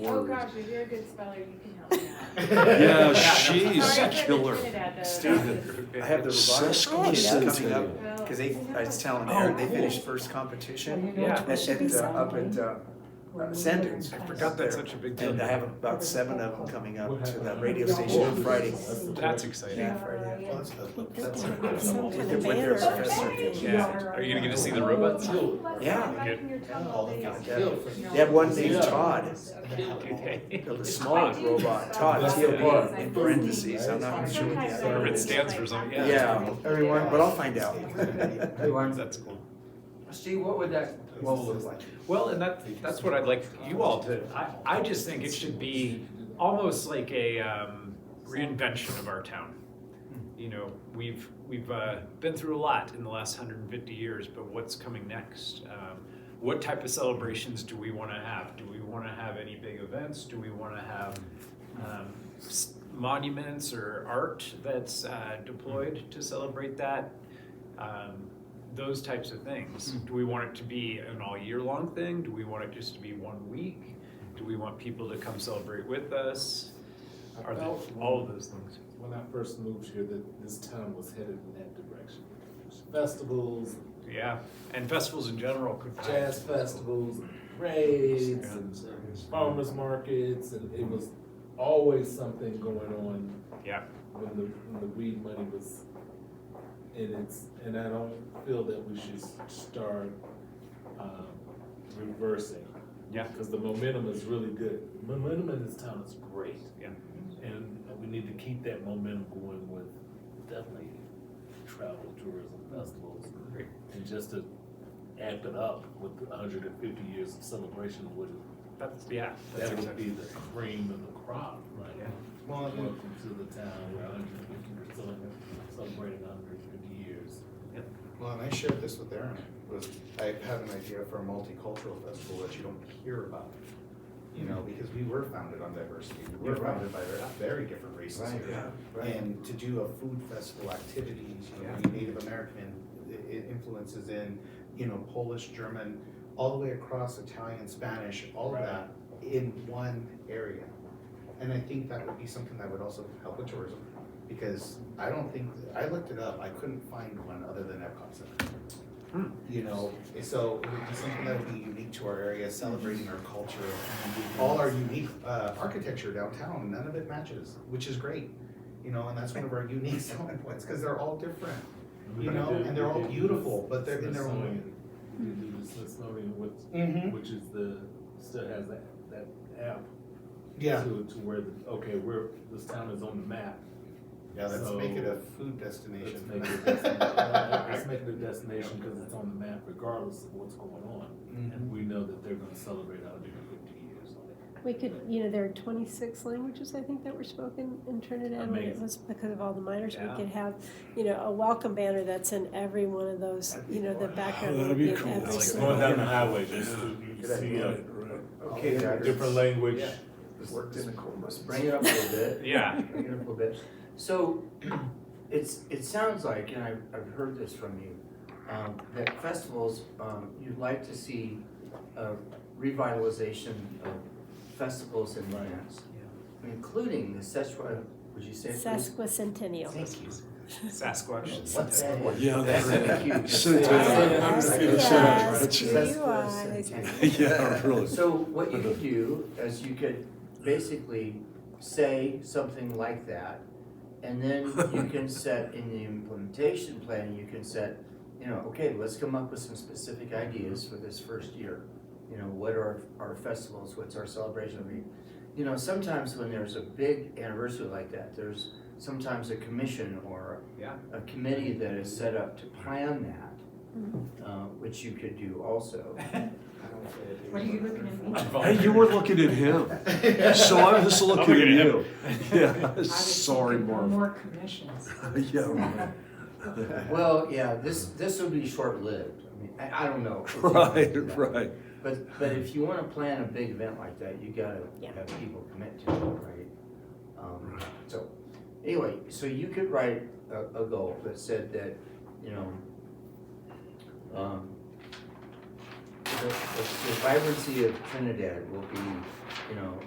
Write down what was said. Oh words. gosh, if you're a good speller, you can help me out. Yeah, Sorry, she's I a couldn't killer. put it at the- I have the robotics Sesquicentennial. coming up, Well, cause they, I was telling Oh, Aaron, they cool. finished first competition Yeah. at, at, uh, up at, uh, uh, Sand Dunes. I up forgot that's there. such a big deal. And I have about seven of them coming up to the radio station on Friday. That's exciting. Yeah, Friday. Well, that's good. That's Some with kind their- of with their banner. professor. Yeah. Are you gonna get to see the robots? Yeah. Back in your tub all day. They have one named Todd, Okay. the small robot, Todd, T O D, in parentheses, I'm not sure what the Or other it is. stands for something, yeah. Yeah, everyone, but I'll find out. That's cool. Steve, what would that role look like? Well, and that, that's what I'd like you all to, I, I just think it should be almost like a um, reinvention of our town. You know, we've, we've uh, been through a lot in the last hundred and fifty years, but what's coming next? Um, What type of celebrations do we wanna have? Do we wanna have any big events? Do we wanna have um, s- monuments or art that's uh, deployed to celebrate that? um, those types of things. Hmm. Do we want it to be an all year long thing? Do we want it just to be one week? Do we want people to come celebrate with us? Are there, all of those things? When I first moved here, that this town was headed in that direction. Festivals, Yeah, and festivals in general could. jazz festivals, parades, and farmers markets, and it was always something going on Yeah, when the, when the weed money was in its, and I don't feel that we should start, um, reversing. Yeah. Cause the momentum is really good. Momentum in this town is great. Yeah. And we need to keep that momentum going with definitely travel, tourism, festivals. Great. And just to amp it up with the hundred and fifty years of celebration would, that's, yeah, that's that would be exactly. the cream of the crop, right? Yeah. Well, and- Welcome to the town, we're hundred and fifty, we're celebrating, celebrating hundred and fifty years. Well, and I shared this with Aaron, was I have an idea for a multicultural festival that you don't hear about. You know, because we were founded on diversity, we were Yeah, right. founded by very different races Right, here. And to do a food festival activities, you know, Yeah. bring Native American i- i- influences in, you know, Polish, German, all the way across Italian, Spanish, all of Right. that in one area. And I think that would be something that would also help with tourism, because I don't think, I looked it up, I couldn't find one other than Epcot Center. Hmm. You know, so it would be something that would be unique to our area, celebrating our culture, all our unique, uh, architecture downtown, none of it matches, which is great. You know, and that's one of our unique selling points, cause they're all different, you know, and they're all beautiful, but they're in their own way. They do the Smithsonian, which, Mm-hmm. which is the, still has that, that app Yeah, to, to where, the okay, we're, this town is on the map. yeah, let's So- make it a food Let's destination. make it a destination, let's make it a destination because it's on the map regardless of what's going on. Mm-hmm. And we know that they're gonna celebrate our different fifty years on it. We could, you know, there are twenty-six languages, I think, that were spoken in Trinidad, and it Amazing. was because of all the miners, we Yeah. could have, you know, a welcome banner that's in every one of those, That'd be you know, the cool. background. Oh, That'd would be of cool. every Like single- going down the highway, just uh, so you see a Okay, daggers. language. Worked in the corners. Bring it up a little bit. Yeah, Bring it up a little bit. So it's, it sounds like, and I've, I've heard this from you, um, that festivals, um, you'd like to see a revitalization of festivals and lands, including the Szechuan, would you say? it was? Sesquicentennial. Thank you. Sasquatch. What's that? word? Yeah, that's Thank right. you. Centennial. I'm just gonna say that. That's it. Sesquicentennial. Yeah, really. So what you could do is you could basically say something like that, and then you can set in the implementation plan, you can set, you know, okay, let's come up with some specific ideas for this first year. You know, what are our festivals, what's our celebration, I mean, you know, sometimes when there's a big anniversary like that, there's sometimes a commission or Yeah. a committee that is set up to plan that, uh, which you could do also. What are you looking at me? Hey, you were looking at him, so I was looking at you. Yeah, sorry, Marv. More commissions. Yeah, right. Well, yeah, this, this will be short-lived. I mean, I, I don't know. if you wanna do right, that. right. But, but if you wanna plan a big event like that, you gotta Yeah. have people commit to it, right? Um, so, anyway, so you could write a, a goal that said that, you know, um, the, the the vibrancy of Trinidad will be, you know,